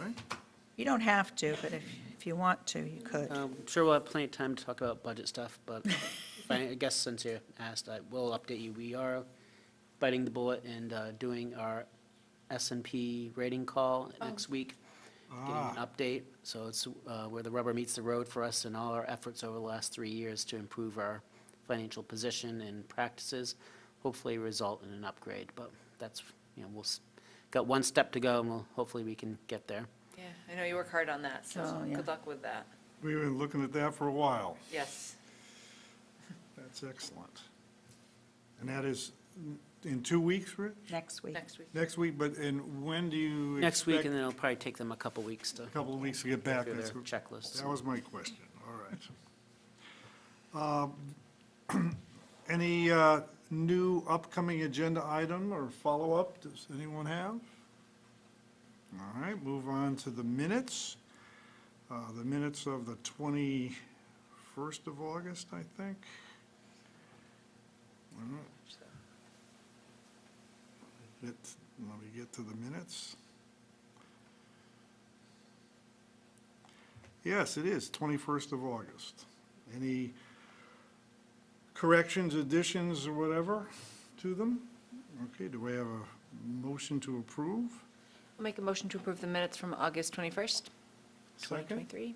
right? You don't have to, but if, if you want to, you could. Uh, Um, Sure, we'll have plenty of time to talk about budget stuff, but if I I guess since you asked, I will update you. We are biting the bullet and uh, doing our S and P rating call next week, getting an Oh. Ah, update. So it's uh, where the rubber meets the road for us in all our efforts over the last three years to improve our financial position and practices, hopefully result in an upgrade. But that's, you know, we'll, s- got one step to go, and we'll, hopefully we can get there. Yeah, I know you work hard on that, so Oh, yeah. good luck with that. we've been looking at that for a while. Yes. That's excellent. And that is in two weeks, Rich? Next week. Next week. Next week, but, and when do you Next week, expect- and then it'll probably take them a couple weeks to A couple of weeks to get back. through their That's what- checklists. That was my question, all right. Um, Any uh, new upcoming agenda item or follow-up does anyone have? All right, move on to the minutes. Uh, The minutes of the 21st of August, I think. All right. Let's- Let me get to the minutes. Yes, it is, 21st of August. Any corrections, additions, or whatever to them? Okay, do we have a motion to approve? I'll make a motion to approve the minutes from August 21st, Second? 2023.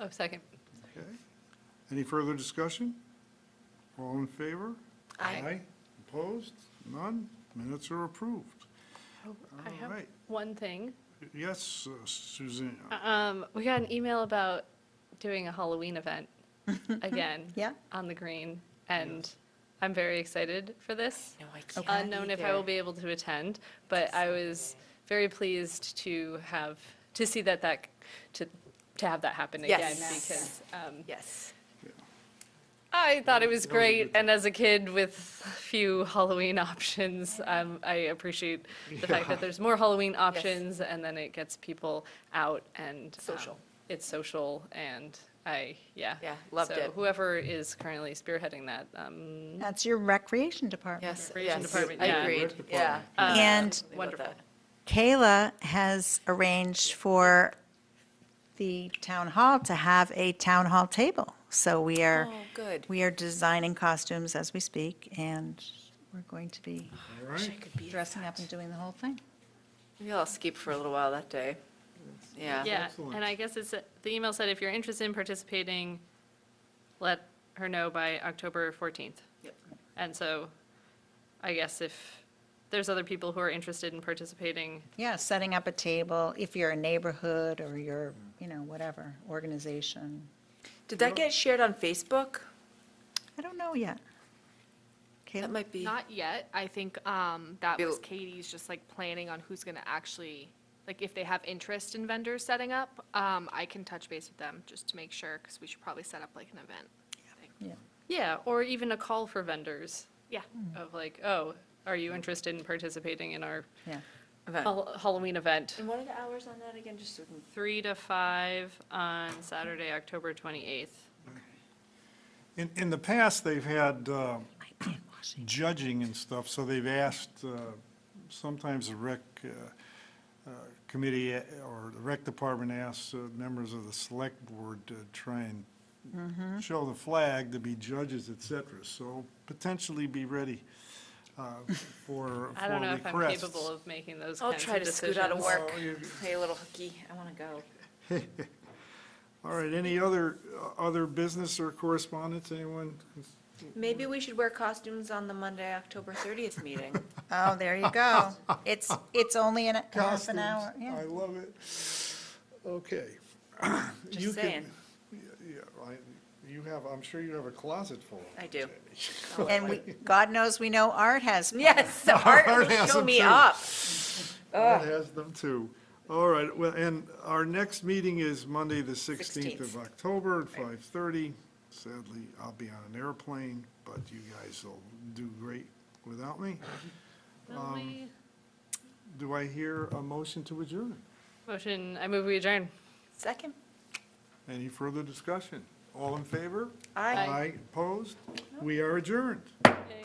Oh, second. Okay. Any further discussion? All in favor? Aye. Opposed? None? Minutes are approved. Oh, I All have right. one thing. Yes, uh, Suzanne? Um, we got an email about doing a Halloween event again. Yeah. On the green, and I'm very excited for this. No, I can't Unknown if I will be able to attend, but I was very pleased to have, to see that that, to, to have that happen again. Yes. Because, um, Yes. I thought it that was was a good great, and as a kid with few Halloween options, um, I appreciate the fact that there's more Halloween options, and then it gets people out and. um, Social. It's social, and I, yeah. Yeah, loved So it. whoever is currently spearheading that, um, That's your recreation department. Yes, Recreation yes. Department, I yeah. agreed, Rec yeah. department. uh, And- About Wonderful. that. Kayla has arranged for the town hall to have a town hall table. So we are, Oh, good. we are designing costumes as we speak, and we're going to be All Wish I right. could be at dressing up that. and doing the whole thing. Maybe I'll skip for a little while that day. Yeah. yeah. excellent. And I guess it's, uh, the email said, if you're interested in participating, let her know by October 14th. Yep. And so, I guess if there's other people who are interested in participating, Yeah, setting up a table, if you're a neighborhood or you're, you know, whatever, organization. Did that get shared on Facebook? I don't know yet. That Kayla? might be. Not yet. I think um, that was Bill- Katie's just like planning on who's going to actually, like if they have interest in vendors setting up, um, I can touch base with them just to make sure, because we should probably set up like an event. thing. Yeah. Yeah, or even a call for vendors Yeah. Mm. of like, oh, are you interested in participating in our Yeah. event. Hall- Halloween event? And what are the hours on that again, just so we can Three to five on Saturday, October 28th. In, in the past, they've had uh, I can't wash it. judging and stuff, so they've asked, uh, sometimes the rec uh, uh, committee uh, or the rec department asks uh, members of the select board to try Mm-hmm. and show the flag to be judges, et cetera, so potentially be ready uh, for, for requests. I don't know if I'm capable of making those I'll kinds try of to scoot out of decisions. work. Oh, you- Hey, little hooky, I want to go. All right, any other, uh, other business or correspondence, anyone? Mm-hmm. Maybe we should wear costumes on the Monday, October 30th meeting. Oh, there you go. It's, it's only in a- half an Costumes. hour, yeah. I love it. Okay. Just You can- saying. Yeah, yeah, I, you have, I'm sure you have a closet full of I them, do. Jamie. And we, God knows, we know Art has. Yes, the Art art will has show them me too. up. That has them too. All right, well, and our next meeting is Monday, the 16th of 16th. October at 5:30. Sadly, I'll be on an airplane, but you guys will do great without me. Will Um, we- Do I hear a motion to adjourn? Motion, I move we adjourn. Second. Any further discussion? All in favor? Aye. Aye, opposed? We are adjourned. Yay.